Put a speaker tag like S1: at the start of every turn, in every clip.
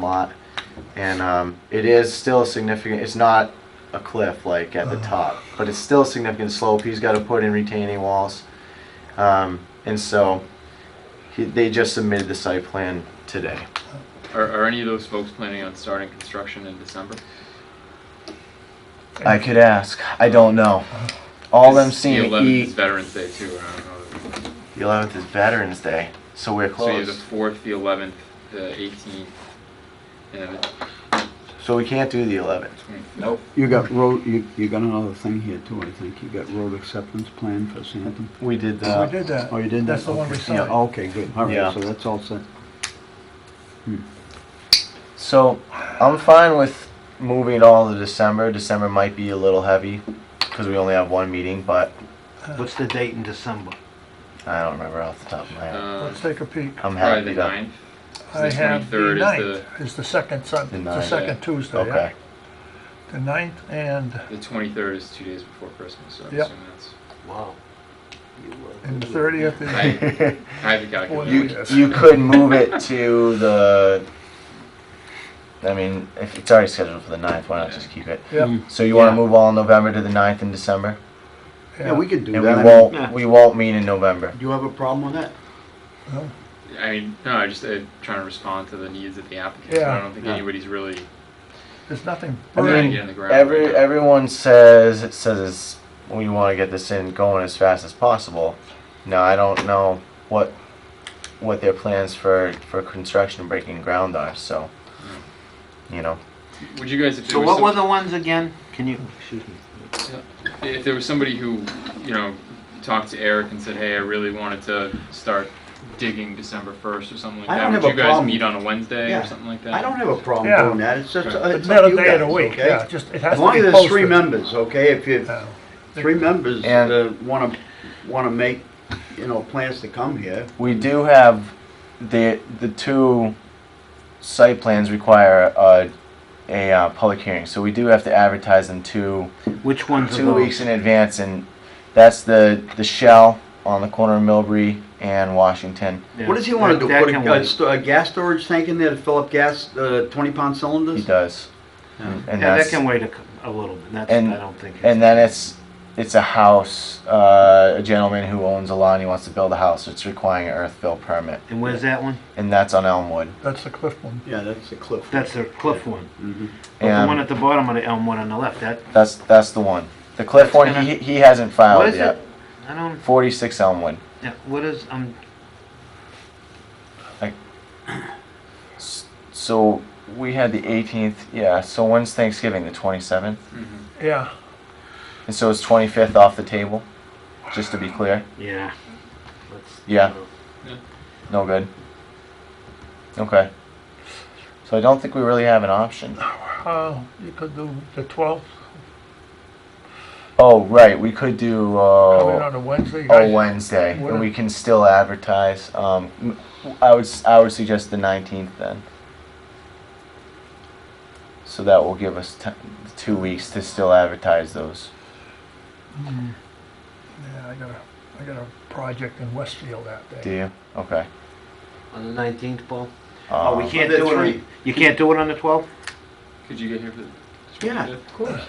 S1: lot. And um, it is still significant. It's not a cliff like at the top, but it's still a significant slope. He's got to put in retaining walls. Um, and so he, they just submitted the site plan today.
S2: Are, are any of those folks planning on starting construction in December?
S1: I could ask. I don't know. All I'm
S2: The
S1: seeing.
S2: 11th is
S1: E-
S2: Veterans Day too, and I don't know.
S1: the 11th is Veterans Day, so we're
S2: So you have the
S1: closed.
S2: 4th, the 11th, the 18th, and the
S1: So we can't do the 11th.
S2: 20th.
S3: Nope.
S4: You got road, you, you got another thing here too, I think. You got road acceptance plan for Santam.
S1: We did
S3: We
S1: that.
S3: did that.
S4: Oh, you did that?
S3: That's the one we
S4: Okay. Yeah, oh,
S3: signed.
S4: okay, good. All
S1: Yeah.
S4: right, so that's all set.
S1: So I'm fine with moving it all to December. December might be a little heavy because we only have one meeting, but
S5: What's the date in December?
S1: I don't remember off the top of my head.
S2: Um,
S3: Let's take a peek.
S1: I'm
S2: Probably
S1: happy
S2: the
S1: to.
S2: 9th. So
S3: I
S2: the
S3: have the
S2: 23rd is
S3: 9th is the second Sun,
S1: The
S3: it's the
S1: 9th,
S3: second Tuesday. yeah.
S1: Okay.
S3: The 9th and,
S2: The 23rd is two days before Christmas, so I'm
S3: Yep.
S2: assuming that's.
S5: Wow. You, uh,
S3: and the 30th is,
S2: I, I have the calculator.
S1: You,
S3: Yes.
S1: you could move it to the, I mean, if it's already scheduled for the 9th, why not just keep it?
S4: Mm.
S3: yeah,
S1: So you want to
S5: Yeah.
S1: move all November to the 9th in December?
S4: Yeah, we could do
S1: And we
S4: that.
S1: won't, we won't meet in November.
S4: Do you have a problem with that?
S3: Well,
S2: I mean, no, I just uh, trying to respond to the needs of the applicant.
S3: Yeah.
S2: I don't think
S4: Yeah.
S2: anybody's really
S3: There's nothing
S1: I
S2: trying to
S1: mean,
S3: burning.
S2: get in the ground.
S1: Every,
S2: right now.
S1: everyone says, it says it's- we want to get this in going as fast as possible. Now, I don't know what, what their plans for, for construction and breaking ground are, so, you know.
S2: Would you guys, if there
S5: So
S2: was
S5: what
S2: some-
S5: were the ones again? Can you, excuse me.
S2: if there was somebody who, you know, talked to Eric and said, "Hey, I really wanted to start digging December 1st or something like
S4: I
S2: that,"
S4: don't
S2: would
S4: have a
S2: you guys
S4: problem.
S2: meet on a Wednesday
S4: Yeah.
S2: or something like that?
S4: I don't have a problem
S3: Yeah.
S4: doing that. It's just,
S2: It's
S4: uh,
S3: It's
S4: it's up
S3: not
S4: to
S3: a
S4: you
S3: day of the
S4: guys,
S3: week,
S4: okay?
S3: yeah, just, it has
S4: As
S3: to be
S4: long as
S3: posted.
S4: there's three members, okay? If you,
S3: Yeah.
S4: three members
S1: And-
S4: uh, wanna, wanna make, you know, plans to come here,
S1: We do have the the two site plans require a, a uh, public hearing, so we do have to advertise them two
S5: Which ones are
S1: two weeks
S5: those?
S1: in advance, and that's the the shell on the corner of Millbury and Washington.
S4: What does he want to do?
S5: That
S4: Put
S5: can
S4: a, a
S5: wait.
S4: sto- a gas storage tank in there to fill up gas, uh, twenty-pound
S1: He
S4: cylinders?
S1: does,
S4: Yeah.
S1: and
S5: Yeah, that
S1: that's
S5: can wait a, cou- a little bit. That's,
S1: And-
S5: I don't think.
S1: and then it's it's a house. Uh, a gentleman who owns a lot and he wants to build a house. It's requiring an earthfill permit,
S5: And where's that one?
S1: and that's on Elmwood.
S3: That's the Cliff one.
S4: Yeah, that's the cliff.
S5: That's the cliff one.
S4: Mhm.
S5: But the one
S1: And
S5: at the bottom of the elm one on the left, that,
S1: that's that's the one. The Cliff
S5: That's
S1: one,
S5: gonna-
S1: he, he hasn't filed
S5: what is
S1: yet.
S5: it? I don't,
S1: Forty six Elmwood.
S5: yeah, what is, um,
S1: So we had the 18th, yeah. So when's Thanksgiving? The 27th?
S2: Mhm.
S3: Yeah,
S1: And so it's 25th off the table? Just to be clear?
S5: yeah. Let's-
S1: Yeah. No good. Okay. So I don't think we really have an option.
S3: uh, you could do the 12th,
S1: Oh, right. We could do
S4: Oh.
S3: coming
S1: uh,
S3: on a Wednesday. You
S1: oh
S3: guys-
S1: Wednesday. And
S3: Whatever.
S1: we can still advertise. Um, m- I would s- I would suggest the 19th then. So that will give us t- two weeks to still advertise those.
S3: Mm. Yeah, I got a, I got a project in Westfield that day.
S1: Do you? Okay.
S5: On the nineteenth, Paul?
S1: Uh,
S5: Oh, we can't
S4: the
S5: do it
S4: three-
S5: on, you can't do it on the twelfth?
S2: Could you get here for the?
S4: Yeah,
S2: 25th?
S4: of course.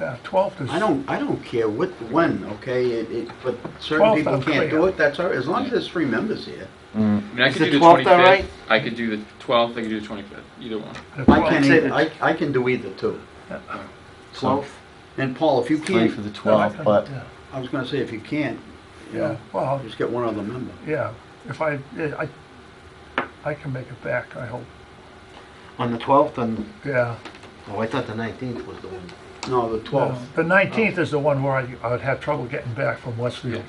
S3: Yeah, 12th is.
S4: I don't, I don't care what, when, okay, it, it, but certain
S3: Twelve
S4: people
S3: sounds
S4: can't
S3: clear.
S4: do it, that's all, right. as long as there's three members here.
S1: mm.
S2: I mean, I
S5: Is
S2: could
S5: the
S2: do the
S5: 12th all
S2: 25th.
S5: right?
S2: I could do the 12th. I could do the 25th. Either one.
S3: the
S4: I
S3: 12th.
S4: can,
S5: say
S4: either-
S5: that-
S4: I, I can do either two.
S5: Twelfth?
S4: And Paul, if you
S1: Three for
S4: can't,
S1: the
S3: No, I
S1: 12th,
S3: can-
S1: but
S3: yeah.
S4: I was gonna say, if you can't, you
S3: Yeah,
S4: know,
S3: well,
S4: just get one other member.
S3: yeah, if I, yeah, I, I can make it back, I hope,
S5: On the twelfth, on,
S3: yeah.
S5: oh, I thought the nineteenth was the one.
S4: No, the twelfth.
S3: The
S4: uh,
S3: 19th is the one where I, I would have trouble getting back from Westfield.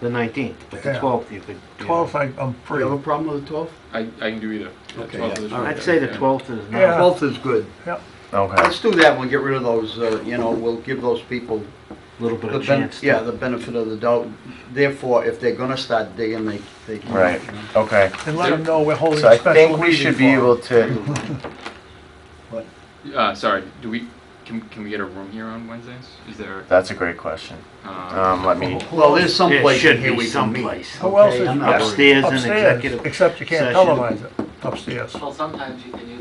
S5: The nineteenth, but the
S3: Yeah.
S5: twelfth you could. yeah.
S3: 12th, I, I'm
S4: You
S3: free.
S4: have a problem with the twelfth?
S2: I, I can do either. The
S4: Okay,
S2: 12th or
S4: yeah.
S2: the
S4: All right.
S5: I'd say the
S2: 25th, yeah.
S5: twelfth is
S3: Yeah.
S5: not,
S4: Twelfth is good.
S1: okay.
S4: Let's do that one, get rid of those, uh, you know, we'll give those people
S5: a little bit
S4: the
S5: of
S4: ben,
S5: chance. to-
S4: yeah, the benefit of the doubt. Therefore, if they're gonna start digging, they, they can.
S1: Right. Okay.
S3: And let them know we're holding
S1: So
S3: a
S1: I
S3: special
S1: think we
S3: meeting
S1: should be
S3: for 'em.
S1: able to.
S2: Uh, sorry. Do we? Can, can we get a room here on Wednesdays? Is there?
S1: That's a great question.
S2: Uh,
S1: Um, let me.
S4: Well, there's some
S5: It
S4: place
S5: should
S4: in here
S5: be
S4: we can meet.
S5: someplace.
S3: Who else
S4: Okay,
S3: is-
S4: I'm not worried.
S5: Upstairs in
S3: Upstairs,
S5: executive.
S3: except you can't
S5: session.
S3: televise it, upstairs.
S6: Well, sometimes you can